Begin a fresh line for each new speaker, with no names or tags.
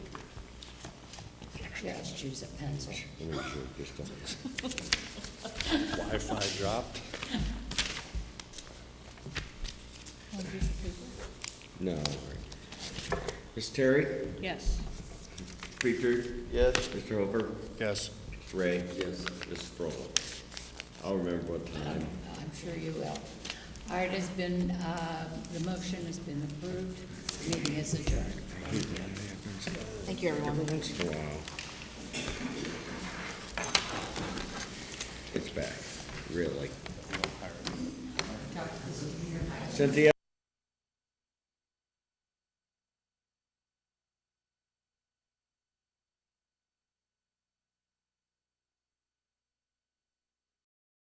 Just use a pencil.
Let me shoot this down.
Wi-Fi dropped.
No. Ms. Terry?
Yes.
Preacher? Yes. Mr. Hooper?
Yes.
Mr. Ray? Yes. Mrs. Brolo? I'll remember what time.
Uh, I'm sure you will. All right, it's been, uh, the motion has been approved. Meeting is adjourned.
Thank you, everyone.
Once in a while. It's back, really. Cynthia?